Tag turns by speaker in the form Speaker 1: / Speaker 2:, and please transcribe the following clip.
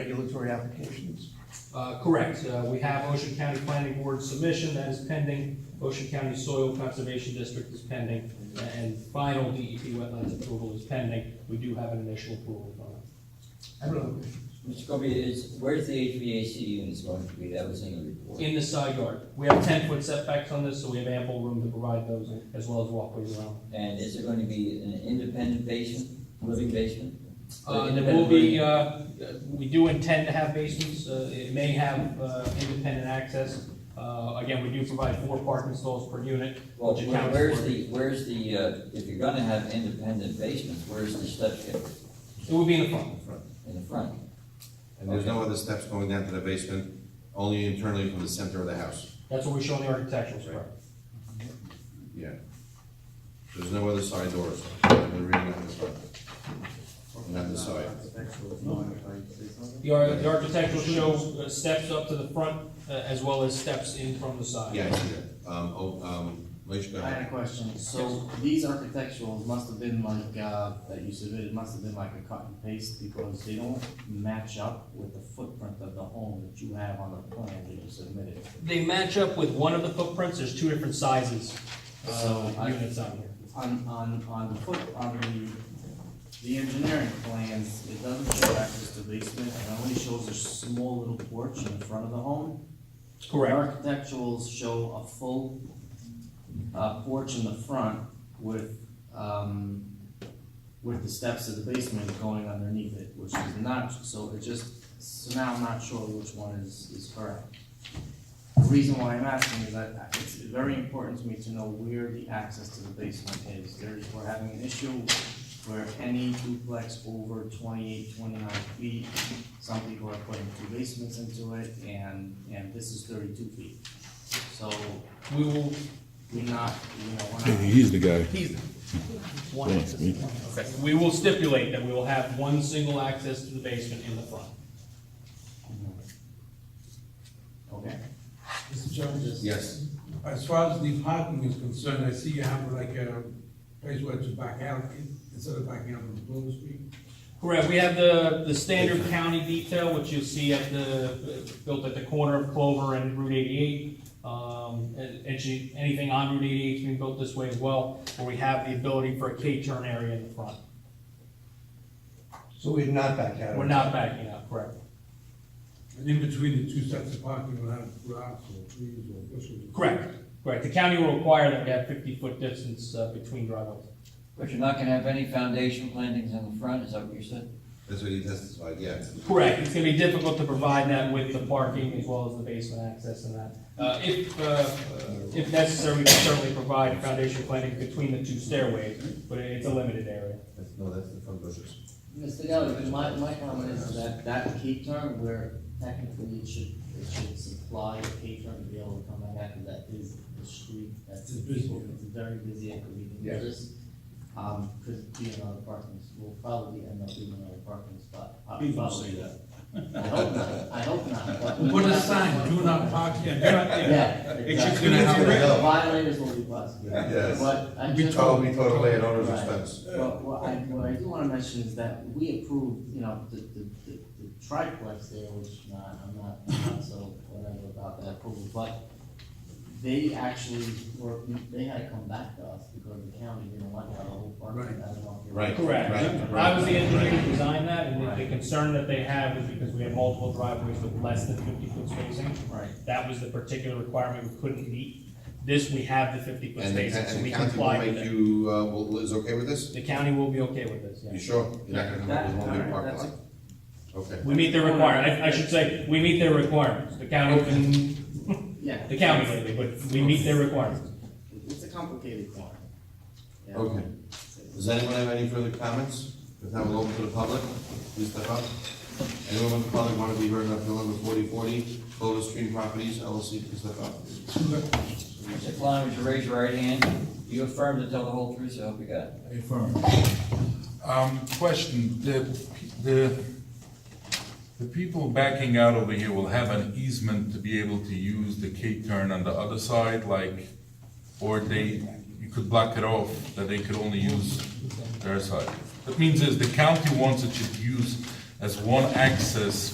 Speaker 1: regulatory applications?
Speaker 2: Uh, Correct. Uh, We have Ocean County Planning Board submission that is pending. Ocean County Soil Conservation District is pending. And final DEP wetlands approval is pending. We do have an initial approval from them.
Speaker 1: I don't know.
Speaker 3: Mr. Corby, is, where's the HVAC units going to be? That was in the report.
Speaker 2: In the side yard, we have ten-foot setbacks on this, so we have ample room to provide those as well as walkways around.
Speaker 3: And is there going to be an independent basement, living basement?
Speaker 2: Uh, and there will be, uh, we do intend to have basements, uh, it may have, uh, independent access. Uh, again, we do provide four parking stalls per unit,
Speaker 3: Well,
Speaker 2: which
Speaker 3: where-
Speaker 2: accounts
Speaker 3: where's
Speaker 2: for-
Speaker 3: the, where's the, uh, if you're gonna have independent basements, where's the step kit
Speaker 2: It would be in the front.
Speaker 3: in the front?
Speaker 4: And there's no other steps going down to the basement, only internally from the center of the house.
Speaker 2: That's what we show in the architectural spread.
Speaker 4: Yeah. There's no other side doors, and they're really not the front. And on the side.
Speaker 2: The ar- the architectural shows uh, steps up to the front, uh, as well as steps in from the side.
Speaker 4: Yeah, I see that. Um, oh, um, Moshe, go
Speaker 5: I had
Speaker 4: ahead.
Speaker 5: a question, so these architecturals must have been like, uh, that you submitted must have been like a cut and paste because they don't match up with the footprint of the home that you have on the plan that you submitted.
Speaker 2: They match up with one of the footprints, there's two different sizes,
Speaker 5: So,
Speaker 2: uh,
Speaker 5: I-
Speaker 2: units on here.
Speaker 5: On, on, on the foot, on the, the engineering plans, it doesn't show access to basement, it only shows a small little porch in front of the home. The
Speaker 2: Correct,
Speaker 5: Architecturals show a full, uh, porch in the front with, um, with the steps of the basement going underneath it, which is not, so it just, so now I'm not sure which one is, is correct. The reason why I'm asking is that it's very important to me to know where the access to the basement is. There's, we're having an issue where any duplex over 28, 29 feet, some people are putting two basements into it, and, and this is thirty-two feet. So
Speaker 2: we will,
Speaker 5: we're not, you know, we're not.
Speaker 6: He's the guy.
Speaker 2: we will stipulate that we will have one single access to the basement in the front.
Speaker 5: Okay.
Speaker 7: Mr. Jones?
Speaker 4: Yes,
Speaker 7: As far as the parking is concerned, I see you have like a place where it's back out, instead of backing out on Bloor Street.
Speaker 2: Correct, we have the, the standard county detail, which you'll see at the, built at the corner of Clover and Route eighty-eight. Um, and, and she- anything on Route eighty-eight's been built this way as well, where we have the ability for a K-turn area in the front.
Speaker 1: So we're not back out. of it.
Speaker 2: We're not backing out, correct?
Speaker 7: And in between the two sets of parking, we'll have grass or trees or bushes.
Speaker 2: Correct, correct. The county will require that we have fifty-foot distance uh, between driveways.
Speaker 3: But you're not gonna have any foundation plantings in the front, is that what you said?
Speaker 4: that's what he testified, yeah.
Speaker 2: Correct, it's gonna be difficult to provide that with the parking as well as the basement access and that. Uh, if, uh, if necessary, we can certainly provide foundation planting between the two stairways, but it's a limited area.
Speaker 4: That's- No, that's the front bushes.
Speaker 5: Mr. Gallagher, my, my comment is that that key term where technically it should, it should supply a key term to be able to come back after that is the street, that's the people, it's very busy and could be dangerous. Um, could be another parking, will probably end up being another parking spot. uh,
Speaker 8: People
Speaker 5: probably.
Speaker 8: say that.
Speaker 5: I hope not, I hope not, but.
Speaker 7: Put a sign, do not park here, do not there.
Speaker 5: Yeah.
Speaker 4: It's
Speaker 5: exactly.
Speaker 4: gonna have to go.
Speaker 5: Violators will be busted.
Speaker 4: Yes.
Speaker 5: But I
Speaker 4: We
Speaker 5: just.
Speaker 4: totally, Oh, we totally at owner's
Speaker 5: Right.
Speaker 4: expense.
Speaker 5: Well, what I, what I do wanna mention is that we approved, you know, the, the, the the triplex there, which, nah, I'm not, I'm not so whatever about that approval, but they actually were, they had to come back to us because the county didn't want to have a whole park, I
Speaker 7: Right.
Speaker 5: don't know. if you-
Speaker 4: Right.
Speaker 2: Correct.
Speaker 4: Right,
Speaker 2: I was the engineer who designed that, and the- the
Speaker 5: Right.
Speaker 2: concern that they have is because we have multiple driveways with less than fifty-foot spacing.
Speaker 5: Right.
Speaker 2: That was the particular requirement we couldn't meet. This, we have the fifty-foot
Speaker 4: And the,
Speaker 2: spacing, so
Speaker 4: and the
Speaker 2: we
Speaker 4: county will
Speaker 2: comply with
Speaker 4: make
Speaker 2: it.
Speaker 4: you, uh, will, is okay with this?
Speaker 2: The county will be okay with this,
Speaker 4: You
Speaker 2: yeah.
Speaker 4: sure? You're not gonna come up with one
Speaker 5: That-
Speaker 4: big parking lot?
Speaker 5: that's-
Speaker 4: Okay.
Speaker 2: We meet their requirement, I, I should say, we meet their requirements. The county can
Speaker 5: Yeah.
Speaker 2: The county lately, but we meet their requirements.
Speaker 5: It's a complicated one. Yeah.
Speaker 4: Okay. Does anyone have any further comments? If not, we'll open to the public. Please step up. Anyone in the public want to be heard on appeal number forty forty, Clover Street Properties LLC, please step up.
Speaker 3: Mr. Klein, would you raise your right hand? You affirm to tell the whole truth, so help you God?
Speaker 9: Um, question, the, the, the people backing out over here will have an easement to be able to use the K-turn on the other side, like, or they, you could block it off, that they could only use their side. That means is the county wants it to use as one access